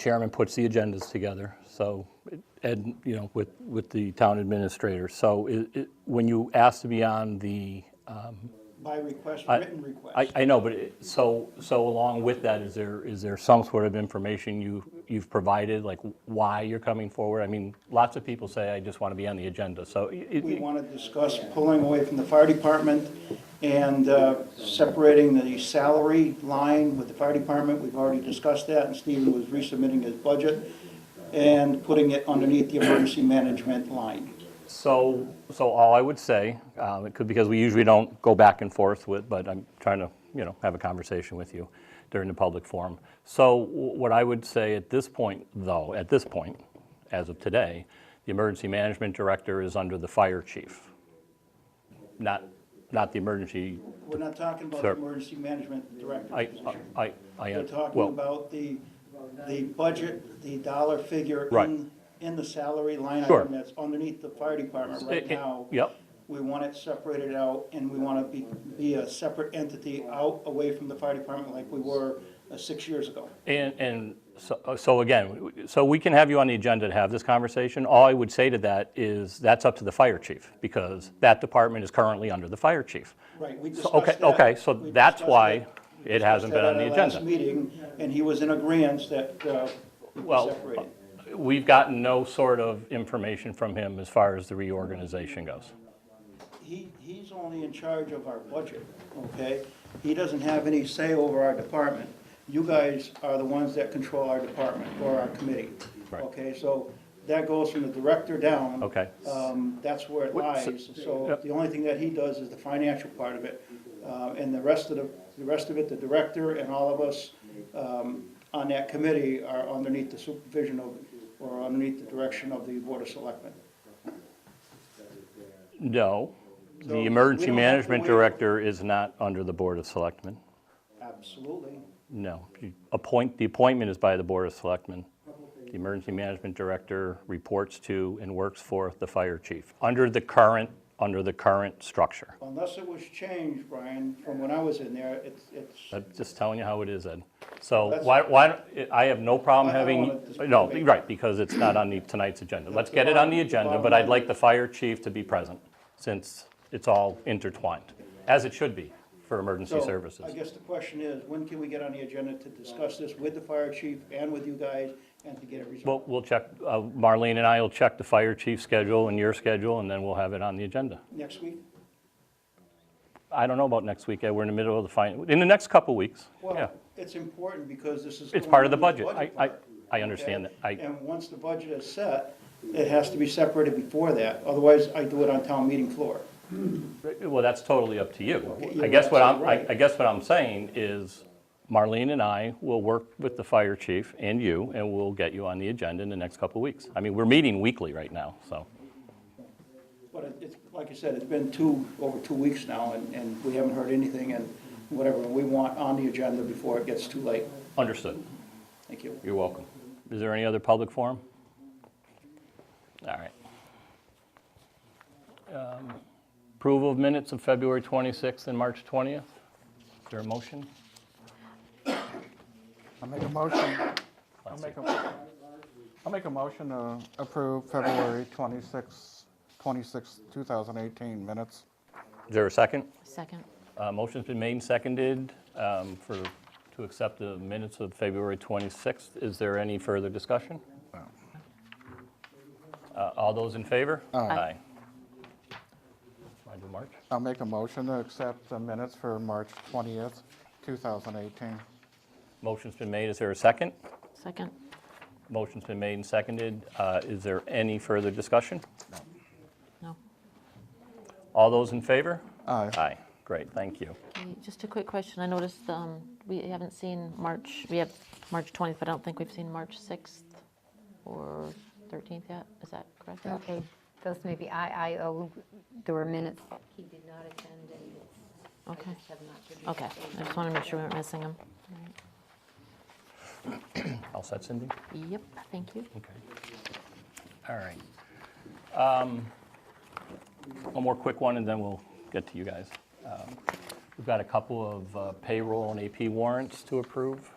chairman puts the agendas together, so, and, you know, with, with the town administrator. So it, it, when you ask to be on the, By request, written request. I, I know, but it- so, so along with that, is there, is there some sort of information you, you've provided, like why you're coming forward? I mean, lots of people say, I just want to be on the agenda, so. it- We want to discuss pulling away from the fire department and uh, separating the salary line with the fire department. We've already discussed that, and Stephen was resubmitting his budget and putting it underneath the emergency management line. So, so all I would say, um, it could, because we usually don't go back and forth with, but I'm trying to, you know, have a conversation with you during the public forum. So wh- what I would say at this point, though, at this point, as of today, the emergency management director is under the fire chief, not, not the emergency, We're not talking about the Sir. emergency management director I, position. I, I, We're I- talking well, about the, the budget, the dollar figure Right. in, in the salary line Sure. item that's underneath the fire department right It- it- now. yep. We want it separated out, and we want to be, be a separate entity out, away from the fire department like we were uh, six years ago. and, and so, so again, so we can have you on the agenda to have this conversation. All I would say to that is, that's up to the fire chief, because that department is currently under the fire chief. Right, we So, discussed okay, that. okay, so We that's discussed why that. We it hasn't been on discussed that the at our last agenda. Meeting, and he was in agreement that, uh, we Well, separated. we've gotten no sort of information from him as far as the reorganization goes. He, he's only in charge of our budget, okay? He doesn't have any say over our department. You guys are the ones that control our department or our committee. Right. Okay, so that goes from the director down. Okay. Um, that's where it Wait, so- lies. So Yep. the only thing that he does is the financial part of it. Uh, and the rest of the, the rest of it, the director and all of us, um, on that committee are underneath the supervision of, or underneath the direction of the Board of Selectmen. No, So we the emergency don't have to management wait. director is not under the Board of Selectmen. Absolutely. No, you appoint, the appointment is by the Board of Selectmen. The emergency management director reports to and works for the fire chief, under the current, under the current structure. Unless it was changed, Brian, from when I was in there, it's, it's, I'm just telling you how it is, Ed. So That's- why, why, don't- I have no problem I don't having, want to no, debate. right, because it's not on the, tonight's agenda. Let's the get it on bottom- the the agenda, bottom but I'd line. like the fire chief to be present, since it's all intertwined, as it should be for emergency so, services. I guess the question is, when can we get on the agenda to discuss this with the fire chief and with you guys, and to get it resolved? Well, we'll check, uh, Marlene and I will check the fire chief's schedule and your schedule, and then we'll have it on the agenda. Next week? I don't know about next week, Ed. we're in the middle of the final, in the next couple weeks, yeah. Well, it's important, because this is. It's going part of the into budget, I, I, part, I understand that, okay? I, And once the budget is set, it has to be separated before that, otherwise I do it on town meeting floor. Well, that's totally up to you. you're I guess what I'm, I- absolutely right. I guess what I'm saying is Marlene and I will work with the fire chief and you, and we'll get you on the agenda in the next couple of weeks. I mean, we're meeting weekly right now, so. But it- it's, like I said, it's been two, over two weeks now, and, and we haven't heard anything, and whatever, we want on the agenda before it gets too late. Understood. Thank you. You're welcome. Is there any other public forum? All right. Um, Approval of minutes of February 26th and March 20th? Is there a motion? I'll make a motion. I'll make a, I'll make a motion to approve February 26, 26, 2018 minutes. Is there a second? Second. Uh, Motion's been made and seconded um, for, to accept the minutes of February 26th. Is there any further discussion? Uh, All those in favor? Aye. I do March? I'll make a motion to accept the minutes for March 20th, 2018. Motion's been made, is there a second? Second. Motion's been made and seconded. Uh, Is there any further discussion? No. All those in favor? Aye. Aye, great, thank you. Okay, Just a quick question. I noticed um, we haven't seen March, we have March 20th, but I don't think we've seen March 6th or 13th yet. Is that correct? Okay, those may be, I, I, owe- there were minutes. He did not attend and Okay, have not given. okay. I just want to make sure we weren't missing them. All set, Cindy? Yep, thank you. Okay. All right. Um, One more quick one, and then we'll get to you guys. Um, We've got a couple of uh, payroll and AP warrants to approve.